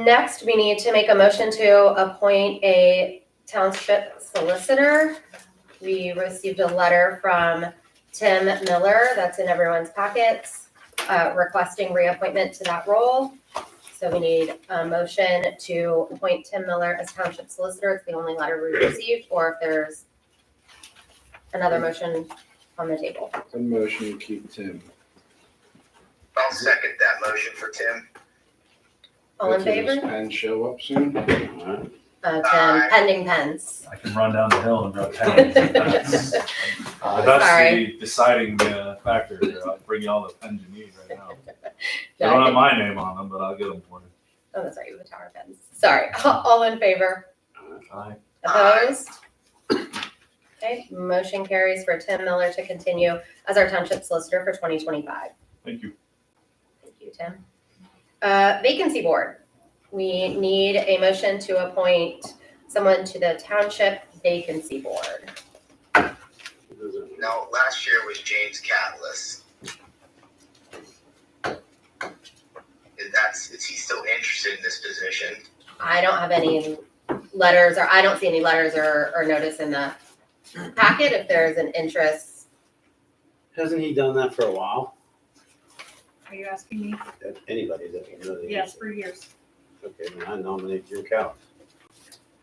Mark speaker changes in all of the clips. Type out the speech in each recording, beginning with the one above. Speaker 1: Next, we need to make a motion to appoint a township solicitor. We received a letter from Tim Miller, that's in everyone's packets, uh, requesting reappointment to that role. So we need a motion to appoint Tim Miller as township solicitor. It's the only letter we received, or if there's another motion on the table.
Speaker 2: A motion to keep Tim.
Speaker 3: I'll second that motion for Tim.
Speaker 1: All in
Speaker 2: Hopefully does
Speaker 1: favor?
Speaker 2: Penn show up soon?
Speaker 4: Alright.
Speaker 1: Uh, Tim, pending pens.
Speaker 5: I can run down the hill and go ten. That's uh, that's
Speaker 1: Sorry.
Speaker 5: the deciding uh, factor. here. I'll bring you all the pens you need right now. They
Speaker 1: No, I
Speaker 5: don't have
Speaker 1: think-
Speaker 5: my name on them, but I'll get them for you.
Speaker 1: Oh, that's right, you have a tower fence. Sorry, all in favor?
Speaker 5: Aye.
Speaker 3: Aye.
Speaker 1: Opposed? Okay, motion carries for Tim Miller to continue as our township solicitor for twenty twenty-five.
Speaker 5: Thank you.
Speaker 1: Thank you, Tim. Uh, vacancy board, we need a motion to appoint someone to the township vacancy board.
Speaker 3: No, last year was James Catless. Is that's, is he still interested in this position?
Speaker 1: I don't have any letters, or I don't see any letters or, or notice in the packet if there is an interest.
Speaker 4: Hasn't he done that for a while?
Speaker 6: Are you asking me?
Speaker 4: Anybody that can really.
Speaker 6: Yes, for years.
Speaker 4: Okay, then I nominate Jim Callis.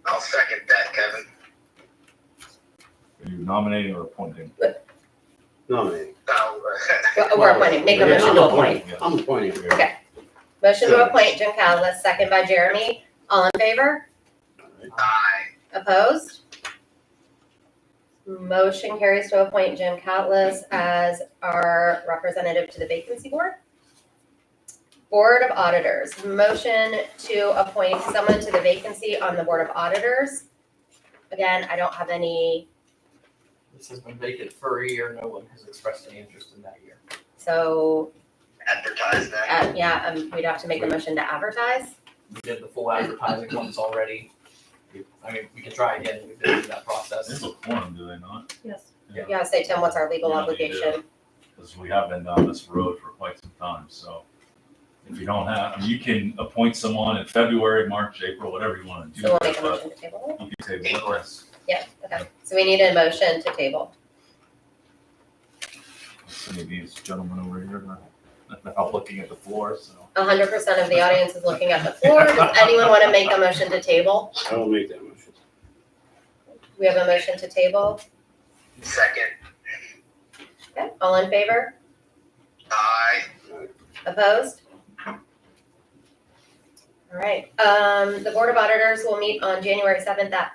Speaker 3: I'll second that, Kevin.
Speaker 5: Are you nominating or appointing?
Speaker 4: Nominate.
Speaker 3: I'll, uh,
Speaker 1: We're we're appointing, make a
Speaker 4: Yeah,
Speaker 1: motion
Speaker 4: I'm
Speaker 1: to appoint.
Speaker 4: appointing, I'm appointing him.
Speaker 1: Okay. Motion to appoint Jim Callis, second by Jeremy. All in favor?
Speaker 4: Alright.
Speaker 3: aye,
Speaker 1: Opposed? Motion carries to appoint Jim Callis as our representative to the vacancy board. Board of Auditors, motion to appoint someone to the vacancy on the Board of Auditors. Again, I don't have any,
Speaker 7: This has been vacant for a year, no one has expressed any interest in that year.
Speaker 1: so,
Speaker 3: advertise that.
Speaker 1: uh, yeah, um, we'd have to make a motion to advertise.
Speaker 7: We did the full advertising once already. We- I mean, we can try again, we've been through that
Speaker 5: It's
Speaker 7: process.
Speaker 5: a quorum, do they not?
Speaker 6: Yes.
Speaker 1: You gotta say, Tim, what's our legal
Speaker 5: Yeah, we do.
Speaker 1: obligation?
Speaker 5: Because we have been down this road for quite some time, so. If you don't have, I mean, you can appoint someone in February, March, April, whatever you want to do,
Speaker 1: So we'll make a
Speaker 5: but
Speaker 1: motion to table it.
Speaker 5: you can table it. Let's
Speaker 1: Yeah, okay, so we need a motion to table.
Speaker 5: see these gentlemen over here, they're all looking at the floor, so.
Speaker 1: hundred percent of the audience is looking at the floor. Does anyone want to make a motion to table?
Speaker 4: I will make that motion.
Speaker 1: We have a motion to table.
Speaker 3: Second,
Speaker 1: Okay, all in favor?
Speaker 3: aye.
Speaker 1: Opposed? All right, um, the Board of Auditors will meet on January seventh at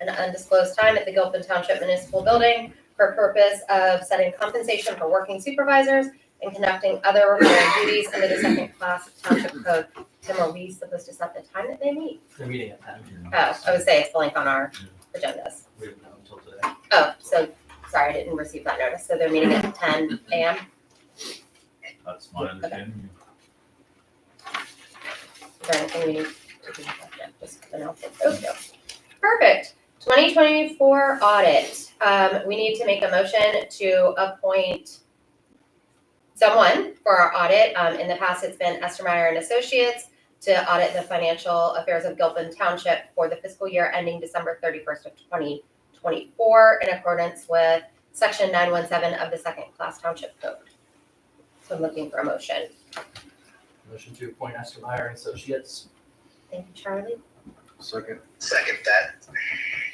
Speaker 1: an undisclosed time at the Gilpin Township Municipal Building for purpose of setting compensation for working supervisors and conducting other required duties under the second class township code. Tim, are we supposed to set the time that they meet?
Speaker 7: The meeting at ten,
Speaker 1: Oh, I would say it's blank on our agendas.
Speaker 7: we didn't know until today.
Speaker 1: Oh, so, sorry, I didn't receive that notice. So they're meeting at ten AM.
Speaker 5: That's my understanding.
Speaker 1: Is there anything we need to do? No, Just announce it. Okay. Perfect. Twenty twenty-four audit. Um, we need to make a motion to appoint someone for our audit. Um, in the past, it's been Estermeyer and Associates to audit the financial affairs of Gilpin Township for the fiscal year ending December thirty-first of twenty twenty-four in accordance with section nine one seven of the second class township code. So I'm looking for a motion.
Speaker 7: Motion to appoint Esther Meyer and Associates.
Speaker 1: Thank you, Charlie.
Speaker 2: Second.
Speaker 3: Second that,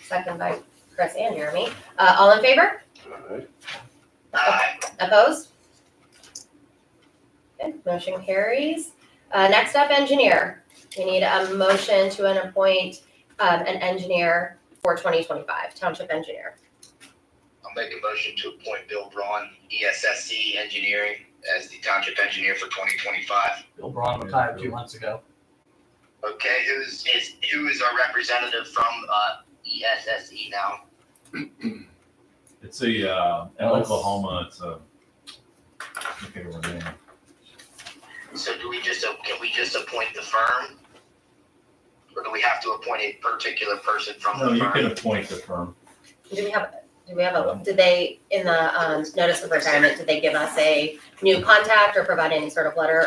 Speaker 1: Second by Chris and Jeremy. Uh, all in favor?
Speaker 4: Alright.
Speaker 3: aye.
Speaker 1: Opposed? Okay, motion carries. Uh, next up, engineer. We need a motion to an appoint, um, an engineer for twenty twenty-five, township engineer.
Speaker 3: I'll make a motion to appoint Bill Braun, E ESSC Engineering, as the township engineer for twenty twenty-five.
Speaker 7: Bill Braun retired two months ago.
Speaker 3: Okay, who's, is, who is our representative from, uh, ESSE E now?
Speaker 5: It's a, uh, in
Speaker 7: Ellis.
Speaker 5: Oklahoma, it's a, I can't remember the name.
Speaker 3: So do we just, can we just appoint the firm? Or do we have to appoint a particular person from
Speaker 5: No,
Speaker 3: the
Speaker 5: you can
Speaker 3: firm?
Speaker 5: appoint the firm.
Speaker 1: Do we have, do we have a, did they, in the, um, notice of retirement, did they give us a new contact or provide any sort of letter